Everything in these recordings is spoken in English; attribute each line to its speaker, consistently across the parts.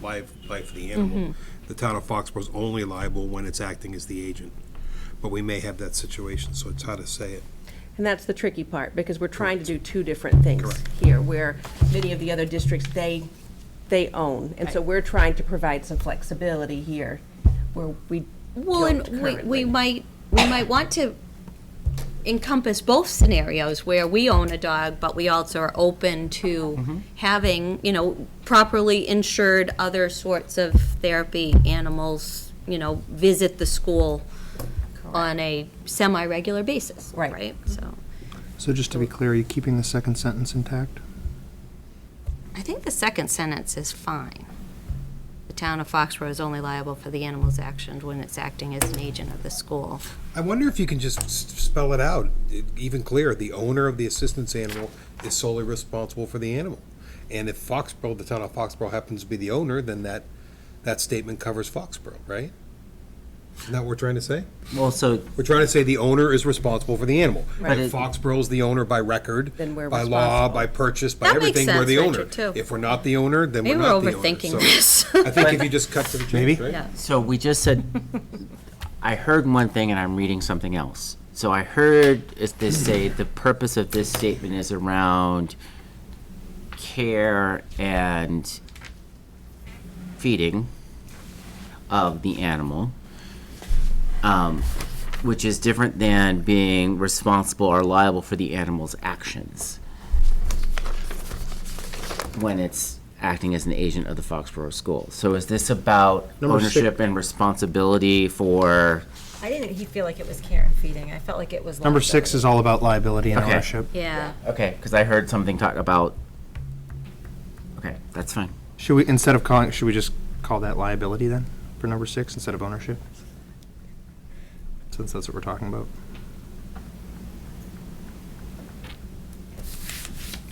Speaker 1: wildlife for the animal. The town of Foxborough's only liable when it's acting as the agent. But we may have that situation, so it's hard to say it.
Speaker 2: And that's the tricky part, because we're trying to do two different things here, where many of the other districts, they, they own. And so we're trying to provide some flexibility here, where we
Speaker 3: Well,
Speaker 2: don't
Speaker 3: and we, we
Speaker 2: currently.
Speaker 3: might, we might want to encompass both scenarios where we own a dog, but we also are open
Speaker 2: Mm-hmm.
Speaker 3: to having, you know, properly insured other sorts of therapy animals, you know, visit the school on a semi-regular basis,
Speaker 2: Right. Mm-hmm.
Speaker 3: right? So,
Speaker 4: So just to be clear, are you keeping the second sentence intact?
Speaker 3: I think the second sentence is fine. The town of Foxborough is only liable for the animal's actions when it's acting as an agent of the school.
Speaker 1: I wonder if you can just s- spell it out, e- even clearer. The owner of the assistance animal is solely responsible for the animal. And if Foxborough, the town of Foxborough happens to be the owner, then that, that statement covers Foxborough, right? Isn't that what we're trying to say?
Speaker 5: Well, so,
Speaker 1: We're trying to say the owner is responsible for the animal.
Speaker 2: Right.
Speaker 1: If Foxborough's the owner by record,
Speaker 2: Then we're
Speaker 1: by law,
Speaker 2: responsible.
Speaker 1: by purchase, by
Speaker 3: That makes
Speaker 1: everything, we're the
Speaker 3: sense,
Speaker 1: owner.
Speaker 3: Richard, too.
Speaker 1: If we're not the owner, then we're
Speaker 3: Maybe we're
Speaker 1: not the owner. So
Speaker 3: overthinking this.
Speaker 1: I think if you just cut to the chase,
Speaker 4: Maybe.
Speaker 1: right?
Speaker 3: Yeah.
Speaker 5: so we just said, I heard one thing and I'm reading something else. So I heard is this say, the purpose of this statement is around care and feeding of the animal, um, which is different than being responsible or liable for the animal's actions when it's acting as an agent of the Foxborough School. So is this about
Speaker 4: Number six.
Speaker 5: ownership and responsibility for?
Speaker 6: I didn't he feel like it was care and feeding. I felt like it was
Speaker 4: Number six is all about liability and
Speaker 5: Okay.
Speaker 4: ownership.
Speaker 3: Yeah.
Speaker 5: Okay, because I heard something talk about. Okay, that's fine.
Speaker 4: Should we, instead of calling, should we just call that liability then, for number six, instead of ownership? Since that's what we're talking about.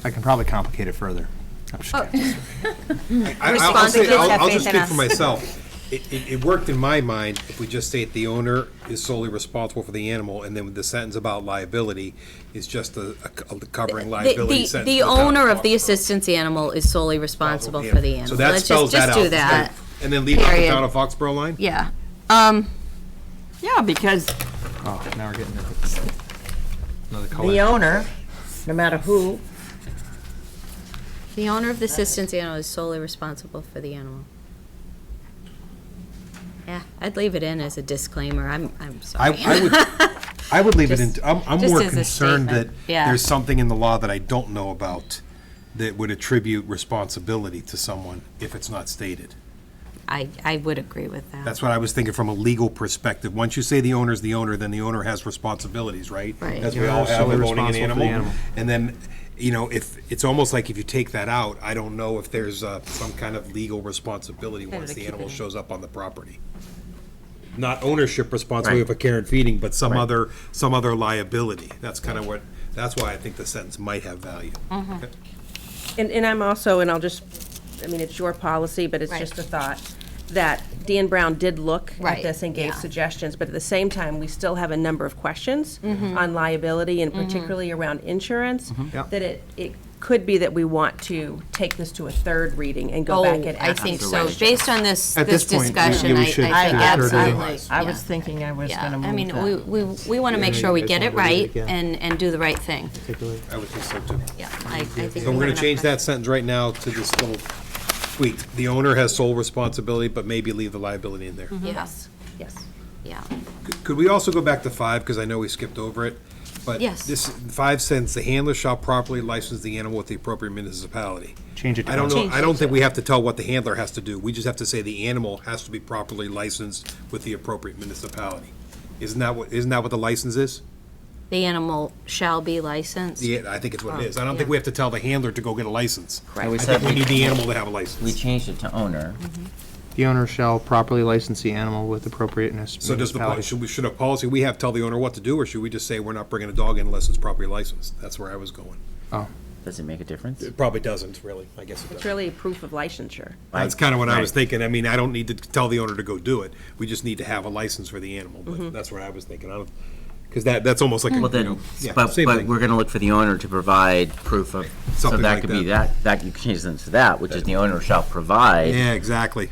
Speaker 4: I can probably complicate it further. I'm just kidding.
Speaker 1: I- I'll- I'll say-
Speaker 3: Responsible.
Speaker 1: I'll- I'll
Speaker 3: Have
Speaker 1: just
Speaker 3: faith in
Speaker 1: speak for
Speaker 3: us.
Speaker 1: myself. It, it, it worked in my mind if we just state the owner is solely responsible for the animal, and then the sentence about liability is just a, a co- a covering
Speaker 3: The-
Speaker 1: liability
Speaker 3: The,
Speaker 1: sentence.
Speaker 3: the
Speaker 1: for town
Speaker 3: owner of the
Speaker 1: Foxborough.
Speaker 3: assistance animal is solely responsible for the animal.
Speaker 1: So that
Speaker 3: Let's just-
Speaker 1: spells that out.
Speaker 3: Just do that,
Speaker 1: And then leave out the
Speaker 3: Period.
Speaker 1: town of Foxborough line?
Speaker 3: yeah. Um,
Speaker 7: Yeah, because
Speaker 4: Oh, now we're getting into another
Speaker 7: the
Speaker 4: color.
Speaker 7: owner, no matter who,
Speaker 3: the owner of the assistance animal is solely responsible for the animal. Yeah, I'd leave it in as a disclaimer, I'm, I'm
Speaker 1: I,
Speaker 3: sorry.
Speaker 1: I would, I would leave it in,
Speaker 3: Just-
Speaker 1: I'm, I'm
Speaker 3: just
Speaker 1: more
Speaker 3: as a
Speaker 1: concerned that
Speaker 3: statement, yeah.
Speaker 1: there's something in the law that I don't know about that would attribute responsibility to someone if it's not stated.
Speaker 3: I, I would agree with that.
Speaker 1: That's what I was thinking from a legal perspective. Once you say the owner's the owner, then the owner has responsibilities, right?
Speaker 3: Right.
Speaker 1: As we
Speaker 4: You're
Speaker 1: all have
Speaker 4: solely
Speaker 1: of owning an
Speaker 4: responsible for the
Speaker 1: animal.
Speaker 4: animal.
Speaker 1: And then, you know, if, it's almost like if you take that out, I don't know if there's uh, some kind of legal responsibility once the animal shows up on the property. Not ownership responsibility
Speaker 5: Right.
Speaker 1: for care and feeding, but some other, some other liability. That's kind of what, that's why I think the sentence might have value.
Speaker 2: And, and I'm also, and I'll just, I mean, it's your policy, but it's
Speaker 3: Right.
Speaker 2: just a thought, that Dan Brown did look at
Speaker 3: Right,
Speaker 2: this and gave
Speaker 3: yeah.
Speaker 2: suggestions, but at the same time, we still have a number of questions
Speaker 3: Mm-hmm.
Speaker 2: on liability and particularly around insurance,
Speaker 4: Yeah.
Speaker 2: that it, it could be that we want to take this to a third reading and go
Speaker 3: Oh,
Speaker 2: back and
Speaker 3: I
Speaker 2: ask.
Speaker 3: think so, based on this,
Speaker 4: At
Speaker 3: this
Speaker 4: this point, we-
Speaker 3: discussion,
Speaker 4: we
Speaker 3: I,
Speaker 4: should
Speaker 3: I
Speaker 4: do
Speaker 3: think
Speaker 4: a third reading.
Speaker 3: absolutely.
Speaker 7: I
Speaker 3: yeah.
Speaker 7: was thinking I was
Speaker 3: Yeah,
Speaker 7: gonna move
Speaker 3: I
Speaker 7: that.
Speaker 3: mean, we, we, we want to make sure we
Speaker 4: guys
Speaker 3: get it
Speaker 4: wanna read it
Speaker 3: right
Speaker 4: again.
Speaker 3: and, and do the right thing.
Speaker 1: I would think so too.
Speaker 3: Yeah, I, I think.
Speaker 1: So
Speaker 3: we
Speaker 1: we're gonna
Speaker 3: have
Speaker 1: change
Speaker 3: enough-
Speaker 1: that sentence right now to this little tweak. The owner has sole responsibility, but maybe leave the liability in there.
Speaker 3: Yes,
Speaker 2: Yes.
Speaker 3: yeah.
Speaker 1: Could we also go back to five, because I know we skipped over it? But
Speaker 3: Yes.
Speaker 1: this, five says, "The handler shall properly license the animal with the appropriate municipality."
Speaker 4: Change it to
Speaker 1: I don't know,
Speaker 4: Change
Speaker 1: I don't think we have to tell what the handler has to do. We just have to say the animal has to be properly licensed with the appropriate municipality. Isn't that what, isn't that what the license is?
Speaker 3: The animal shall be licensed.
Speaker 1: Yeah, I think it's what it is. I don't think
Speaker 3: Oh, yeah.
Speaker 1: we have to tell the handler to go get a license.
Speaker 5: Right.
Speaker 1: I
Speaker 5: We
Speaker 1: think
Speaker 5: said
Speaker 1: we
Speaker 5: we-
Speaker 1: need the animal to have a license.
Speaker 5: We changed it to owner.
Speaker 1: Mm-hmm.
Speaker 4: The owner shall properly license the animal with appropriateness.
Speaker 1: So does the, pol- should we, should a policy we have tell the owner what to do, or should we just say we're not bringing a dog in unless it's properly licensed? That's where I was going.
Speaker 5: Does it make a difference?
Speaker 1: It probably doesn't, really, I guess it
Speaker 2: It's
Speaker 1: does.
Speaker 2: really a proof of licensure.
Speaker 1: That's kind of what I was
Speaker 5: Right.
Speaker 1: thinking. I mean, I don't need to tell the owner to go do it. We just need to have a license for the animal, but that's what I was thinking. I don't, Because that, that's almost like, a,
Speaker 5: Well,
Speaker 1: you
Speaker 5: then,
Speaker 1: know, yeah,
Speaker 5: but,
Speaker 1: same
Speaker 5: but
Speaker 1: thing.
Speaker 5: we're gonna look for the owner to provide proof of, so
Speaker 1: Something
Speaker 5: that
Speaker 1: like
Speaker 5: could be
Speaker 1: that.
Speaker 5: that, that, you can change them to that, which is the owner shall provide.
Speaker 1: Yeah, exactly.